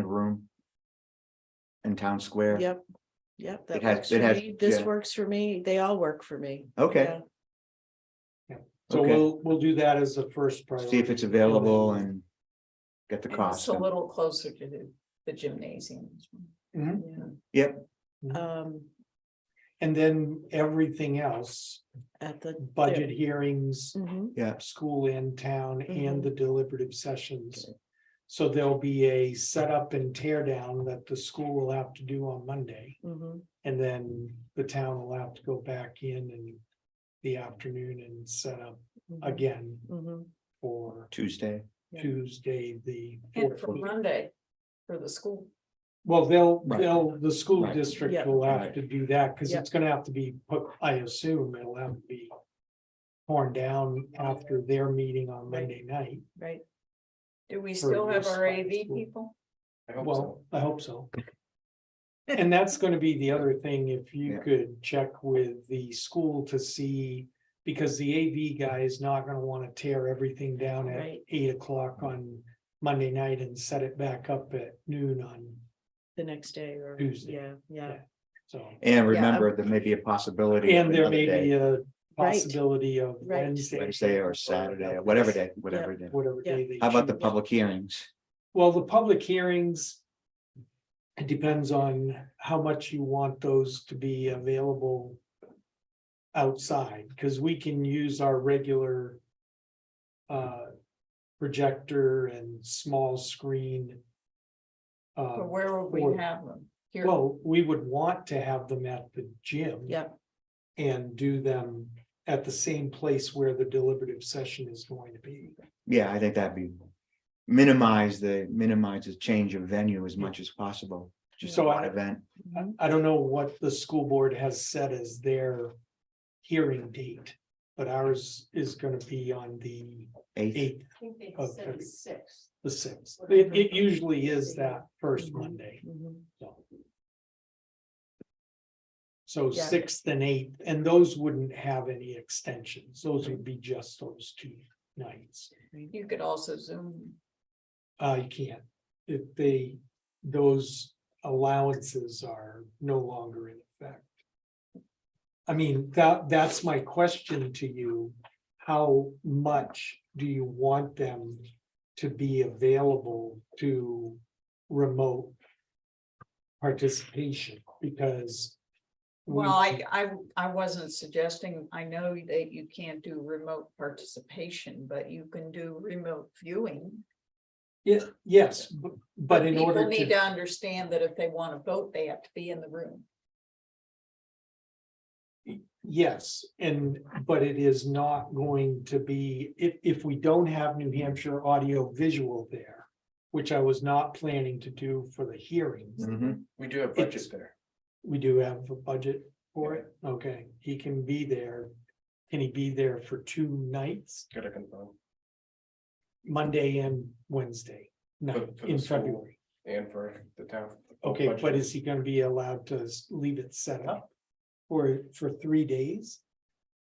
of room. In town square. Yep, yep, that It has- works it for has- me. This yeah. works for me. They all work for me. Okay, Yeah. So Okay. we'll, we'll do that as the first priority. see if it's available and get the And cost. It's a and- little closer to the, the gymnasium. Mhm. Yeah. Yep, Mm-hmm. Um, And then everything else, at the. budget hearings, Mhm. yeah, school in town Mhm. Mm-hmm. and the deliberative sessions. So there'll be a setup and tear down that the school will have to do on Monday. Mhm. And then the town will have to go back in in the afternoon and set up mhm, again mhm. for Tuesday. Yeah. Tuesday, the. And for 14th. Monday, for the school. Well, they'll, Right. they'll, the school Right. district Yeah. will have Right. to do that, because Yeah. it's gonna have to be, put. I assume it'll have to be. Torn down after their meeting on Right. Monday night. Right, Do we For still have your our spot AV school. people? Well, I hope so. And that's gonna be the other thing, if you Yeah. could check with the school to see. Because the AV guy is not gonna wanna tear everything down at Right. eight o'clock on Monday night and set it back up at noon on, the next day or, Tuesday. yeah, yeah, so. And remember, there may be a possibility. of And there another may day, be a Right. possibility of Right. Wednesday. Wednesday or Saturday, or whatever day, whatever day. Whatever Yeah. day. they How about the choose. public hearings? Well, the public hearings. It depends on how much you want those to be available. Outside, because we can use our regular. Uh, projector and small screen. Or Uh, where would for- we have them? Here, well, we would want to have them at the gym. yep, and do them at the same place where the deliberative session is going to be. Yeah, I think that'd be minimize the minimize the change of venue as much as possible. Just So one I- event. I, Mm-hmm. Mm-hmm. I don't know what the school board has set as their hearing date, but ours is gonna be on the Eighth, eighth, I think they of said February. six. the sixth. It, it usually is that first Mhm. Monday, mhm, so. So Yeah. sixth and eighth, and those wouldn't have any extensions. Those would be just those two nights. You could also zoom. Uh, you can't, if they, those allowances are no longer in effect. I mean, that, that's my question to you, how much do you want them to be available to remote? Participation, because. we- Well, I, I, I wasn't suggesting, I know that you can't do remote participation, but you can do remote viewing. Ye- Yes, bu- but in people order Need to to, understand that if they want to vote, they have to be in the room. yes, and, but it is not going to be, if, if we don't have New Hampshire audio visual there, which I was not planning to do for the hearings, Mhm. We do have It's- budget there. we do have a budget for it, okay, he can be there. Can he be there for two nights, Gotta confirm. Monday and Wednesday, night For- for the in school. February? And for the town. Okay, but Budget. is he gonna be allowed to s- leave it set up for, for three days?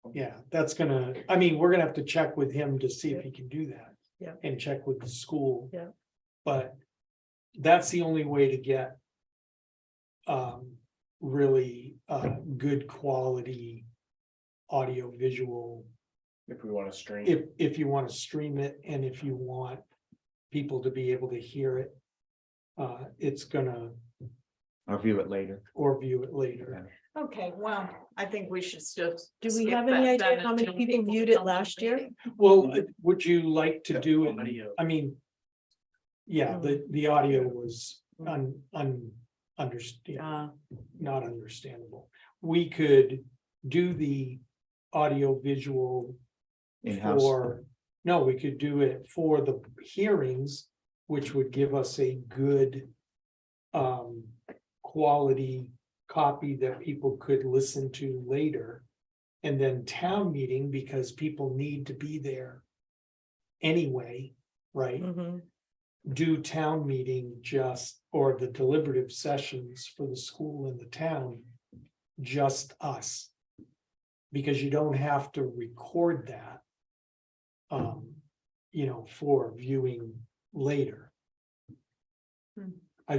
Oh. Yeah, that's gonna, I mean, we're gonna have to check with him to see if he can do that. Yeah. And check with the school. Yeah. But that's the only way to get um, really uh, good quality audio visual, If we wanna stream. if, if you wanna stream it and if you want people to be able to hear it. Uh, it's gonna, I'll view it later. or view it later. Okay, well, I think we should still. Do we skip have any that idea then how many until people viewed come it to last the year? meeting. Well, uh, would you like to do it? uh, Audio. I mean. Yeah, the, the audio was un, un, understand, Uh, not understandable. We could do the audio visual In-house. for, no, we could do it for the hearings, which would give us a good um, quality copy that people could listen to later. And then town meeting, because people need to be there anyway, right? mhm, do town meeting just, or the deliberative sessions for the school and the town, just us. Because you don't have to record that. Um, you know, for viewing later. Hmm.